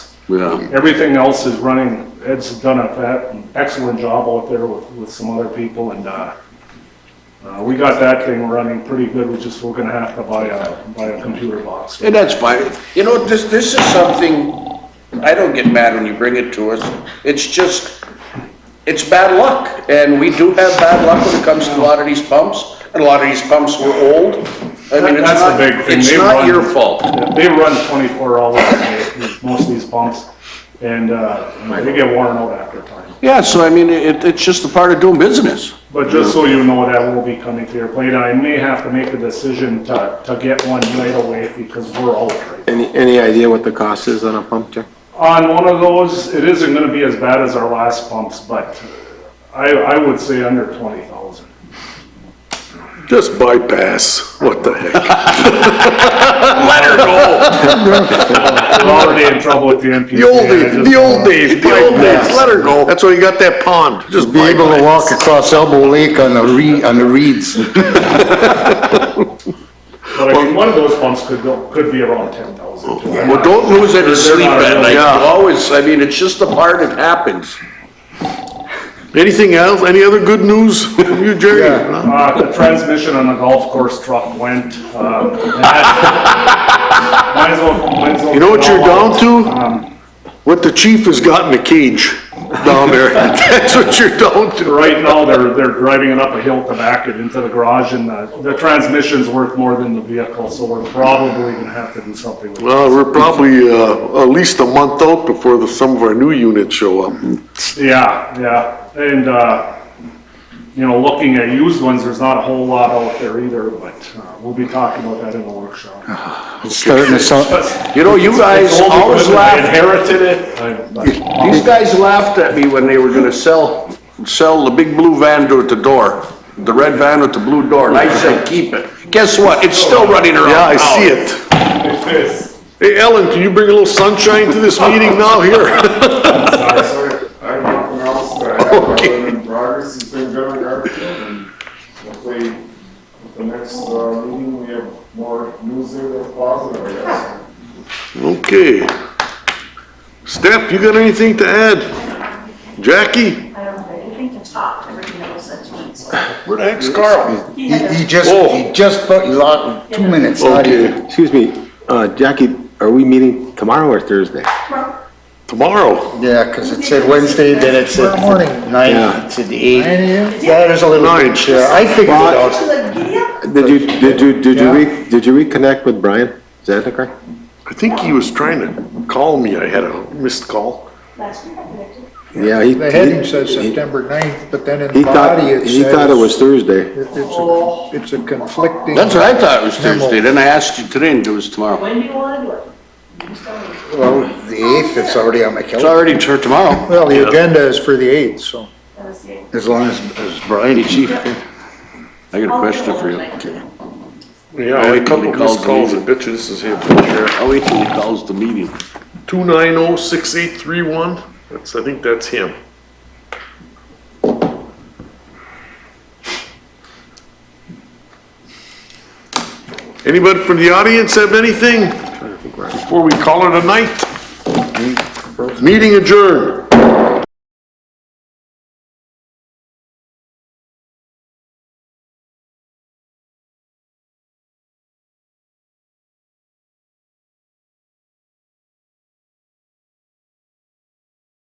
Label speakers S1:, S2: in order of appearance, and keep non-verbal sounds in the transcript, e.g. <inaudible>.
S1: Yeah,
S2: Everything else is running, Ed's done a fa- excellent job out there with, with some other people and, uh, uh, we got that thing running pretty good, we just, we're gonna have to buy a, buy a computer box.
S1: and that's fine. You know, this, this is something, I don't get mad when you bring it to us. It's just, it's bad luck. And we do have bad luck when it comes to a lot of these pumps, and a lot of these pumps were old. I mean, it's
S2: That's the
S1: not,
S2: big thing.
S1: it's
S2: They
S1: not
S2: run-
S1: your fault.
S2: Yeah, They run twenty-four hours a day, most of these pumps, and, uh, you know, they get worn out after time.
S1: Yeah, so I mean, it, it's just a part of doing business.
S2: But just so you know, that will be coming to your plate, I may have to make a decision to, to get one right away because we're out right now.
S3: Any, any idea what the cost is on a pump check?
S2: On one of those, it isn't gonna be as bad as our last pumps, but I, I would say under twenty thousand.
S4: Just bypass, what the heck?
S2: We're already in trouble with the MPCA.
S4: The old
S2: I
S4: days,
S2: just-
S4: the old days, the old days, let her go. That's why you got that pond, just
S5: Be able to
S4: bypass.
S5: walk across Elbow Lake on the re, on the reeds.
S2: But I think one of those pumps could go, could be around ten thousand.
S1: Well, don't lose any sleep at night. You
S4: Yeah.
S1: Always, I mean, it's just a part, it happens.
S4: Anything else, any other good news from you, Jerry?
S5: Yeah.
S4: No?
S2: Uh, the transmission on the golf course truck went, uh. might as well- might as well
S4: You know what you're
S2: get all
S4: down to?
S2: out. Um,
S4: What the chief has got in the cage down there, <laughs> that's what you're down to.
S2: Right now, they're, they're driving it up a hill to back it into the garage and the, the transmission's worth more than the vehicle, so we're probably gonna have to do something with it.
S4: Well, we're probably, uh, at least a month out before the, some of our new units show up.
S2: Yeah, yeah, and, uh, you know, looking at used ones, there's not a whole lot out there either, but, uh, we'll be talking about that in the workshop.
S5: It's starting to sound,
S1: You know, you guys
S2: It's old
S1: always
S2: equipment, I
S1: laugh.
S2: Inherited it, I- but-
S1: These guys laughed at me when they were gonna sell, sell the big blue van to at the door, the red van with the blue door, and I said, keep it. Guess what? It's still running around.
S4: Yeah, I see
S1: town.
S4: it. Hey, Ellen, can you bring a little sunshine to this meeting now here? <laughs>
S6: I started, I have nothing else that I have other than progress has been done in Garfield, and hopefully, at the next, uh, meeting, we have more news there that's positive, I guess.
S4: Okay. Steph, you got anything to add? Jackie?
S7: I don't have anything to talk, everything that was said to me, so.
S4: Where the heck's Carl?
S5: he, he just, he just, put- he locked two minutes, not even.
S4: Oh. Okay,
S3: Excuse me, uh, Jackie, are we meeting tomorrow or Thursday?
S7: Well,
S4: tomorrow.
S5: Yeah, 'cause it said Wednesday, then it said nine,
S3: Yeah.
S5: it said eight. Yeah, there's a little
S4: Nine.
S5: bit, yeah, I figured it
S3: Well-
S5: out.
S7: to giddy up,
S3: Did you, did you, did you,
S5: Yeah.
S3: re- did you reconnect with Brian Zandikar?
S4: I think he was trying to call me. I had a missed call.
S7: last year I predicted.
S3: Yeah, he.
S8: The heading says September 9th, but then in
S3: He thought,
S8: body it says.
S3: he thought it was Thursday.
S8: it- It's a, it's a conflicting.
S1: That's what I thought it was
S8: Memo.
S1: Thursday, then I asked you today and it was tomorrow.
S7: When do you wanna do it? You just tell me.
S5: Well, the eighth, it's already on my
S1: It's
S5: calendar,
S1: already tur- tomorrow.
S8: Well, the agenda is for the 8th, so.
S7: That was the-
S5: as long as, as Brian.
S1: Hey, chief, I got a
S7: I'll
S1: question
S7: do
S1: for
S7: it.
S1: you.
S4: Yeah,
S1: I had a couple missed calls. I
S4: bet you this is him.
S1: I'll wait till he calls the meeting.
S4: Two nine oh six eight three one. That's, I think that's him. Anybody from the audience have anything before we call it a night? Meeting adjourned.